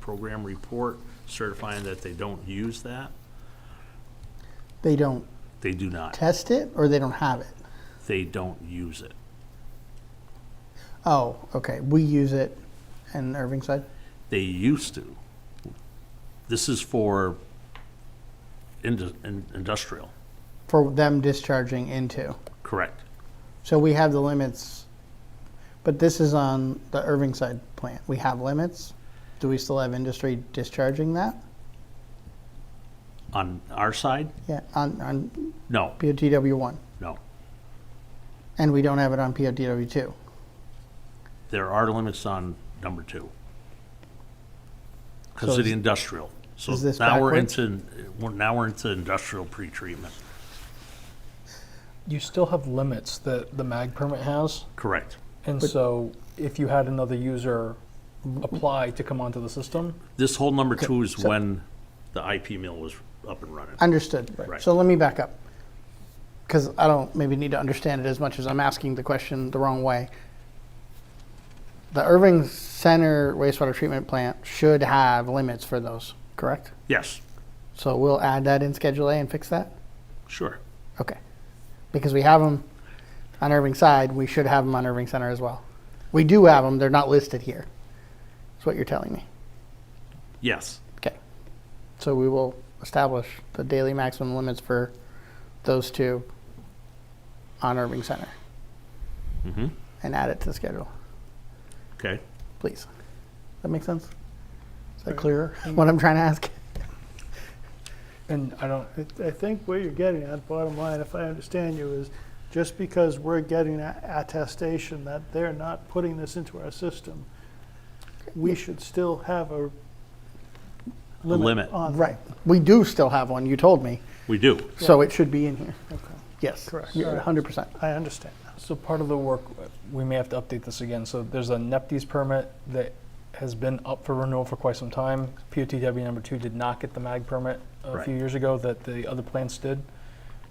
program report certifying that they don't use that? They don't They do not. test it or they don't have it? They don't use it. Oh, okay. We use it in Irving side? They used to. This is for indu- in- industrial, For them discharging into. correct? So we have the limits, but this is on the Irving side plant. We have limits. Do we still have industry discharging that? On our side? Yeah, on, on No, POTW one. no. And we don't have it on POTW two. There are limits on number two. So Because of the is- industrial. So is this now we're backwards? into, we're- now we're into industrial pretreatment, You still have limits that the mag permit has, correct? and so if you had another user apply to come onto the system, This whole number two is so- when the IP mill was up and running. Understood. Right. So let me back up. Because I don't maybe need to understand it as much as I'm asking the question the wrong way. The Irving Center wastewater treatment plant should have limits for those, correct? Yes, So we'll add that in Schedule A and fix that? sure. Okay. Because we have them on Irving side, we should have them on Irving Center as well. We do have them, they're not listed here. That's what you're telling me. Yes, Okay. So we will establish the daily maximum limits for those two on Irving Center. And add it to the schedule, okay. please. That make sense? Is that clearer, what I'm trying to ask? and I don't, I- I think where you're getting at, bottom line, if I understand you, is just because we're getting a- attestation that they're not putting this into our system, we should still have a limit. limit on. it. Right. We do still have one, you told me, We do. so it should be in here. Okay, Yes. Correct. You're 100%. I understand now. so part of the work, we may have to update this again. So there's a NEPTES permit that has been up for renewal for quite some time. POTW number two did not get the mag permit a Right. few years ago that the other plants did.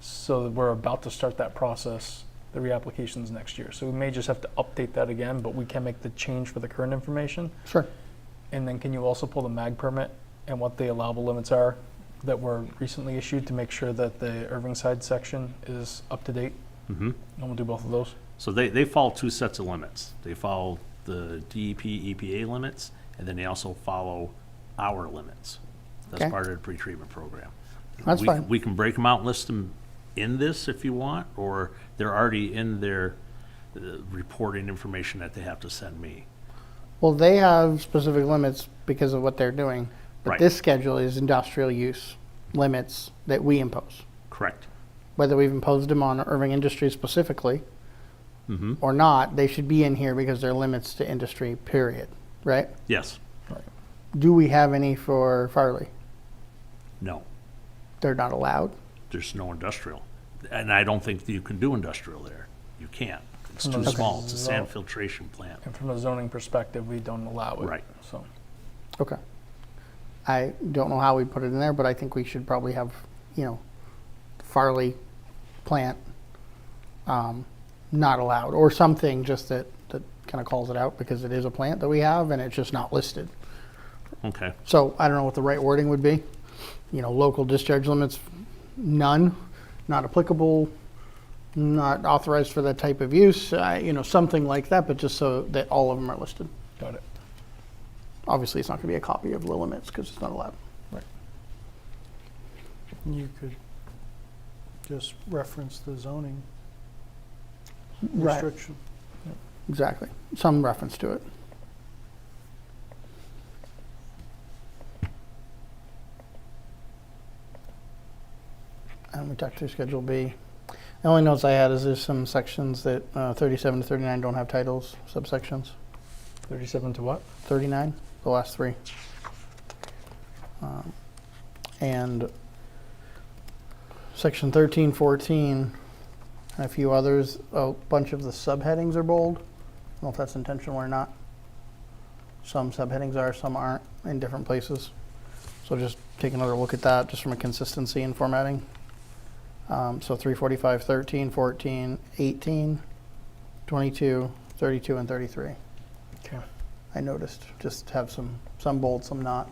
So we're about to start that process, the reapplications next year. So we may just have to update that again, but we can make the change for the current information. Sure. And then can you also pull the mag permit and what the allowable limits are that were recently issued to make sure that the Irving side section is up to date? Mm-hmm. And we'll do both of those. So they, they follow two sets of limits. They follow the E DEP, EPA limits, and then they also follow our limits. That's Okay. part of the pretreatment program. That's We- fine. We can break them out and list them in this if you want, or they're already in their uh, reporting information that they have to send me. Well, they have specific limits because of what they're doing. But Right. this schedule is industrial use limits that we impose. Correct? Whether we've imposed them on Irving Industries specifically or not, they should be in here because they're limits to industry, period, right? Yes? Do we have any for Farley? No? They're not allowed. There's no industrial. And I don't think that you can do industrial there. You can't. It's too Okay. small. It's a sand filtration plant. And from a zoning perspective, we don't allow it. Right. So, Okay. I don't know how we put it in there, but I think we should probably have, you know, Farley plant um, not allowed or something just that, that kind of calls it out because it is a plant that we have and it's just not listed. Okay, So I don't know what the right wording would be. You know, local discharge limits, none, not applicable, not authorized for that type of use, uh, you know, something like that, but just so that all of them are listed. got it. Obviously, it's not going to be a copy of the limits because it's not allowed. You could just reference the zoning Right. restriction. Exactly. Some reference to it. And we talked through Schedule B. The only notes I had is there's some sections that uh, 37 to 39 don't have titles, subsections. 37 to what? 39, the last three. Um, And section 13, 14, and a few others, a bunch of the subheadings are bold. I don't know if that's intentional or not. Some subheadings are, some aren't, in different places. So just take another look at that, just from a consistency and formatting. Um, So 345, 13, 14, 18, 22, 32, and 33. Okay. I noticed, just have some, some bold, some not,